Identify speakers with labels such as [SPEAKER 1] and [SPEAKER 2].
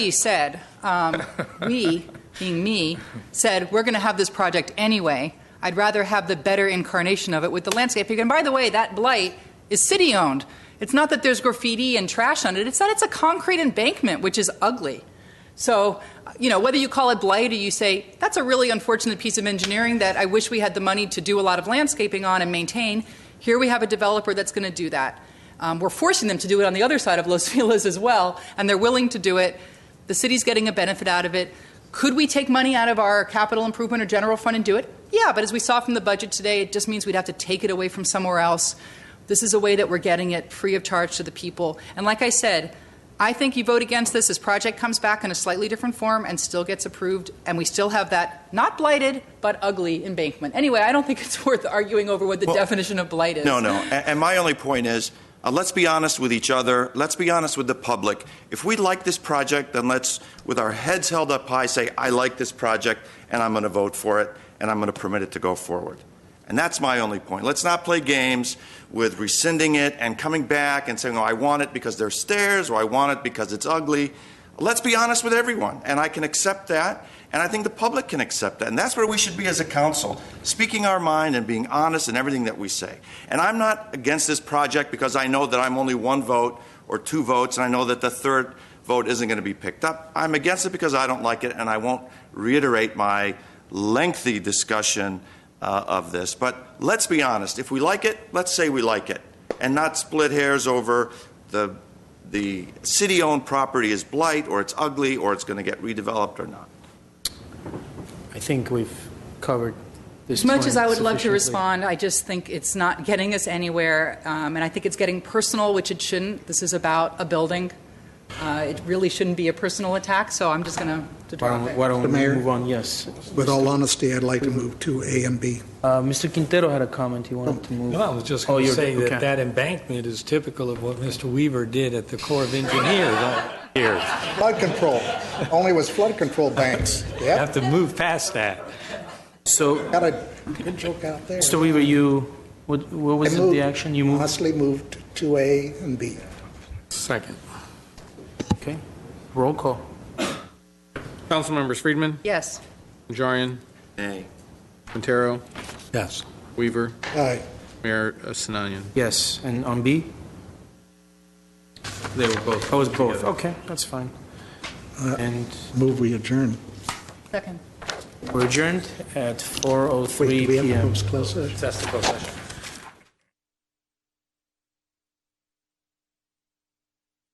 [SPEAKER 1] He said, um, we, being me, said, we're going to have this project anyway. I'd rather have the better incarnation of it with the landscaping. And by the way, that blight is city owned. It's not that there's graffiti and trash on it, it's that it's a concrete embankment, which is ugly. So, you know, whether you call it blight or you say, that's a really unfortunate piece of engineering that I wish we had the money to do a lot of landscaping on and maintain, here we have a developer that's going to do that. Um, we're forcing them to do it on the other side of Los Feliz as well, and they're willing to do it. The city's getting a benefit out of it. Could we take money out of our capital improvement or general fund and do it? Yeah, but as we saw from the budget today, it just means we'd have to take it away from somewhere else. This is a way that we're getting it free of charge to the people. And like I said, I think you vote against this, this project comes back in a slightly different form and still gets approved, and we still have that not blighted but ugly embankment. Anyway, I don't think it's worth arguing over what the
[SPEAKER 2] Well,
[SPEAKER 1] definition of blight is.
[SPEAKER 2] No, no. A- And my only point is, uh, let's be honest with each other. Let's be honest with the public. If we like this project, then let's, with our heads held up high, say, I like this project, and I'm going to vote for it, and I'm going to permit it to go forward. And that's my only point. Let's not play games with rescinding it and coming back and saying, oh, I want it because there's stairs, or I want it because it's ugly. Let's be honest with everyone, and I can accept that, and I think the public can accept that. And that's where we should be as a council, speaking our mind and being honest in everything that we say. And I'm not against this project because I know that I'm only one vote or two votes, and I know that the third vote isn't going to be picked up. I'm against it because I don't like it, and I won't reiterate my lengthy discussion uh, of this. But let's be honest. If we like it, let's say we like it, and not split hairs over the the city-owned property is blight, or it's ugly, or it's going to get redeveloped or not.
[SPEAKER 3] I think we've covered this
[SPEAKER 1] As much as I
[SPEAKER 3] point
[SPEAKER 1] would love to
[SPEAKER 3] sufficiently.
[SPEAKER 1] respond, I just think it's not getting us anywhere, um, and I think it's getting personal, which it shouldn't. This is about a building. Uh, It really shouldn't be a personal attack, so I'm just going to
[SPEAKER 3] Why
[SPEAKER 1] drop
[SPEAKER 3] don't, why
[SPEAKER 1] it.
[SPEAKER 3] don't
[SPEAKER 4] Mr.
[SPEAKER 3] we
[SPEAKER 4] Mayor?
[SPEAKER 3] move on? Yes.
[SPEAKER 4] With all honesty, I'd like to move to A and B.
[SPEAKER 3] Uh, Mr. Quintero had a comment he wanted to move.
[SPEAKER 5] No, I was just
[SPEAKER 3] Oh,
[SPEAKER 5] going to
[SPEAKER 3] you're-
[SPEAKER 5] say
[SPEAKER 3] okay.
[SPEAKER 5] that that embankment is typical of what Mr. Weaver did at the Corps of Engineers. I
[SPEAKER 4] Flood control, only was flood control banks.
[SPEAKER 5] have
[SPEAKER 4] Yep,
[SPEAKER 5] to move past that.
[SPEAKER 3] So,
[SPEAKER 4] got a good joke out there.
[SPEAKER 3] Mr. Weaver, you, what, what was
[SPEAKER 4] I
[SPEAKER 3] it,
[SPEAKER 4] moved-
[SPEAKER 3] the action you moved? Uh,
[SPEAKER 4] Honestly moved to A and B.
[SPEAKER 6] Second.
[SPEAKER 3] Okay. Roll call.
[SPEAKER 6] Councilmembers Friedman,
[SPEAKER 1] Yes.
[SPEAKER 6] Najarian,
[SPEAKER 2] Nay.
[SPEAKER 6] Quintero,
[SPEAKER 5] Yes.
[SPEAKER 6] Weaver,
[SPEAKER 4] Aye.
[SPEAKER 6] Mayor uh, Sinanian.
[SPEAKER 3] Yes, and on B?
[SPEAKER 6] They were both.
[SPEAKER 3] Oh, it's both. Okay, that's fine. And
[SPEAKER 4] Move we adjourn.
[SPEAKER 1] Second.
[SPEAKER 3] we're adjourned oh at
[SPEAKER 4] Wait,
[SPEAKER 3] 4:03
[SPEAKER 4] do we have to
[SPEAKER 3] PM.
[SPEAKER 4] post closed session?
[SPEAKER 6] That's the closed session.